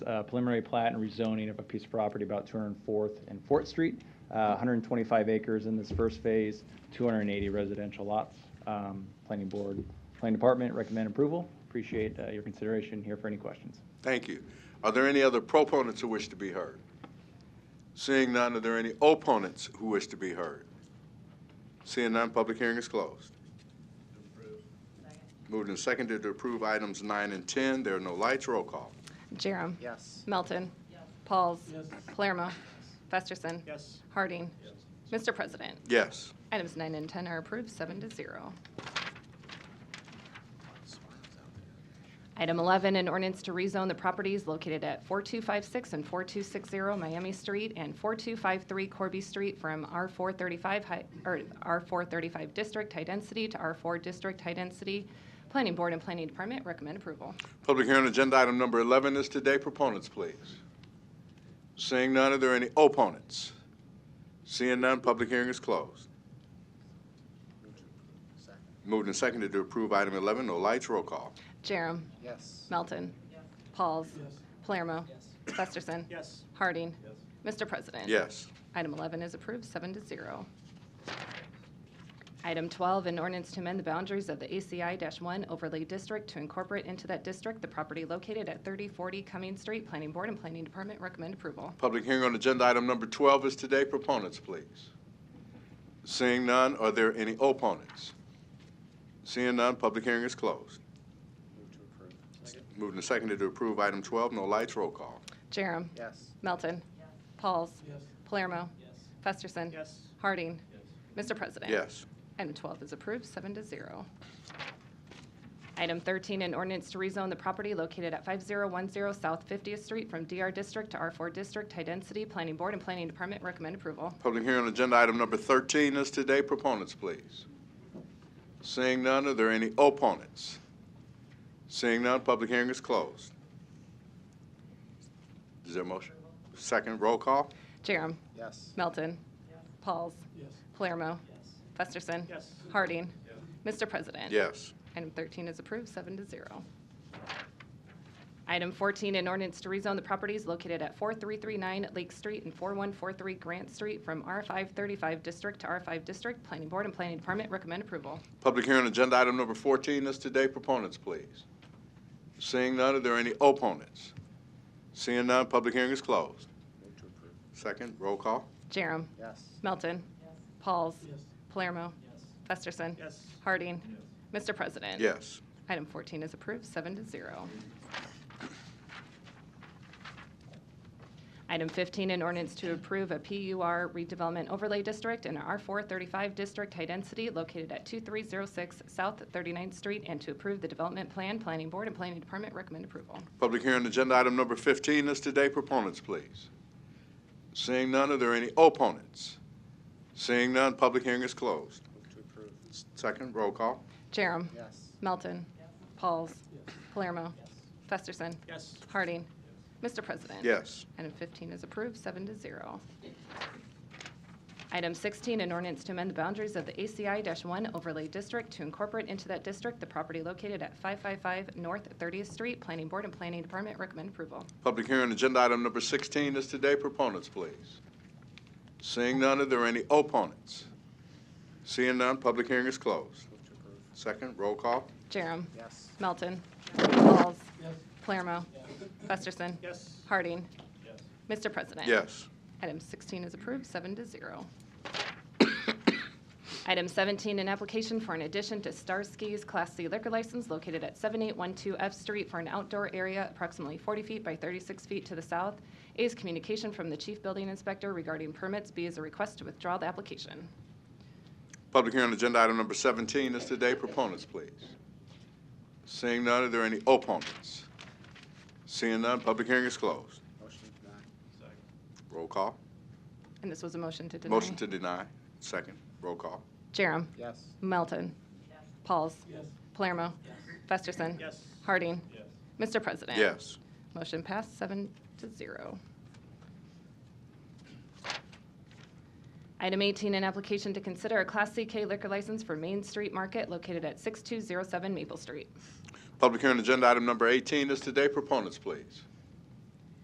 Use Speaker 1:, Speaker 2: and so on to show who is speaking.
Speaker 1: uh, preliminary plat and rezoning of a piece of property about 204th and Fort Street, uh, 125 acres in this first phase, 280 residential lots. Um, Planning Board, Planning Department recommend approval. Appreciate uh, your consideration here for any questions.
Speaker 2: Thank you. Are there any other proponents who wish to be heard? Seeing none, are there any opponents who wish to be heard? Seeing none, public hearing is closed. Moved and seconded to approve items nine and 10. There are no lights. Roll call.
Speaker 3: Jerem.
Speaker 4: Yes.
Speaker 3: Melton. Pauls. Palermo. Festerson.
Speaker 4: Yes.
Speaker 3: Harding. Mr. President,
Speaker 2: Yes.
Speaker 3: items nine and 10 are approved, seven to zero. Item 11, an ordinance to rezone the properties located at 4256 and 4260 Miami Street and 4253 Corby Street from R435, hi- or R435 District High Density to R4 District High Density. Planning Board and Planning Department recommend approval.
Speaker 2: Public hearing on agenda item number 11 is today. Proponents, please. Seeing none, are there any opponents? Seeing none, public hearing is closed. Moved and seconded to approve item 11. No lights. Roll call.
Speaker 3: Jerem.
Speaker 4: Yes.
Speaker 3: Melton. Pauls. Palermo. Festerson.
Speaker 4: Yes.
Speaker 3: Harding. Mr. President.
Speaker 2: Yes.
Speaker 3: Item 11 is approved, seven to zero. Item 12, an ordinance to amend the boundaries of the ACI-1 overlay district to incorporate into that district the property located at 3040 Cummings Street. Planning Board and Planning Department recommend approval.
Speaker 2: Public hearing on agenda item number 12 is today. Proponents, please. Seeing none, are there any opponents? Seeing none, public hearing is closed. Moved and seconded to approve item 12, no lights, roll call.
Speaker 3: Jerem.
Speaker 4: Yes.
Speaker 3: Melton. Pauls. Palermo. Festerson.
Speaker 4: Yes.
Speaker 3: Harding. Mr. President.
Speaker 2: Yes.
Speaker 3: Item 12 is approved, seven to zero. Item 13, an ordinance to rezone the property located at 5010 South 50th Street from DR District to R4 District, High Density. Planning Board and Planning Department recommend approval.
Speaker 2: Public hearing on agenda item number 13 is today. Proponents, please. Seeing none, are there any opponents? Seeing none, public hearing is closed. Is there a motion? Second, roll call?
Speaker 3: Jerem.
Speaker 4: Yes.
Speaker 3: Melton. Pauls. Palermo. Festerson.
Speaker 4: Yes.
Speaker 3: Harding. Mr. President.
Speaker 2: Yes.
Speaker 3: Item 13 is approved, seven to zero. Item 14, an ordinance to rezone the properties located at 4339 Lake Street and 4143 Grant Street from R535 District to R5 District. Planning Board and Planning Department recommend approval.
Speaker 2: Public hearing on agenda item number 14 is today. Proponents, please. Seeing none, are there any opponents? Seeing none, public hearing is closed. Second, roll call?
Speaker 3: Jerem.
Speaker 4: Yes.
Speaker 3: Melton. Pauls. Palermo. Festerson.
Speaker 4: Yes.
Speaker 3: Harding. Mr. President.
Speaker 2: Yes.
Speaker 3: Item 14 is approved, seven to zero. Item 15, an ordinance to approve a PUR redevelopment overlay district and a R435 district high density located at 2306 South 39th Street, and to approve the development plan, Planning Board and Planning Department recommend approval.
Speaker 2: Public hearing on agenda item number 15 is today. Proponents, please. Seeing none, are there any opponents? Seeing none, public hearing is closed.
Speaker 4: Move to approve.
Speaker 2: Second, roll call?
Speaker 3: Jerem.
Speaker 4: Yes.
Speaker 3: Melton. Pauls. Palermo. Festerson.
Speaker 4: Yes.
Speaker 3: Harding. Mr. President.
Speaker 2: Yes.
Speaker 3: Item 15 is approved, seven to zero. Item 16, an ordinance to amend the boundaries of the ACI-1 overlay district to incorporate into that district the property located at 555 North 30th Street. Planning Board and Planning Department recommend approval.
Speaker 2: Public hearing on agenda item number 16 is today. Proponents, please. Seeing none, are there any opponents? Seeing none, public hearing is closed.
Speaker 4: Move to approve.
Speaker 2: Second, roll call?
Speaker 3: Jerem.
Speaker 4: Yes.
Speaker 3: Melton. Pauls.
Speaker 4: Yes.
Speaker 3: Palermo. Festerson.
Speaker 4: Yes.
Speaker 3: Harding.
Speaker 4: Yes.
Speaker 3: Mr. President.
Speaker 2: Yes.
Speaker 3: Item 16 is approved, seven to zero. Item 17, an application for an addition to Starsky's Class C liquor license located at 7812 F Street for an outdoor area approximately 40 feet by 36 feet to the south. A is communication from the Chief Building Inspector regarding permits. B is a request to withdraw the application.
Speaker 2: Public hearing on agenda item number 17 is today. Proponents, please. Seeing none, are there any opponents? Seeing none, public hearing is closed.
Speaker 4: Motion to deny.
Speaker 2: Roll call.
Speaker 3: And this was a motion to deny.
Speaker 2: Motion to deny, second. Roll call.
Speaker 3: Jerem.
Speaker 4: Yes.
Speaker 3: Melton. Pauls.
Speaker 4: Yes.
Speaker 3: Palermo. Festerson.
Speaker 4: Yes.
Speaker 3: Harding.
Speaker 4: Yes.
Speaker 3: Mr. President.
Speaker 2: Yes.
Speaker 3: Motion passed, seven to zero. Item 18, an application to consider a Class CK liquor license for Main Street Market located at 6207 Maple Street.
Speaker 2: Public hearing on agenda item number 18 is today. Proponents, please.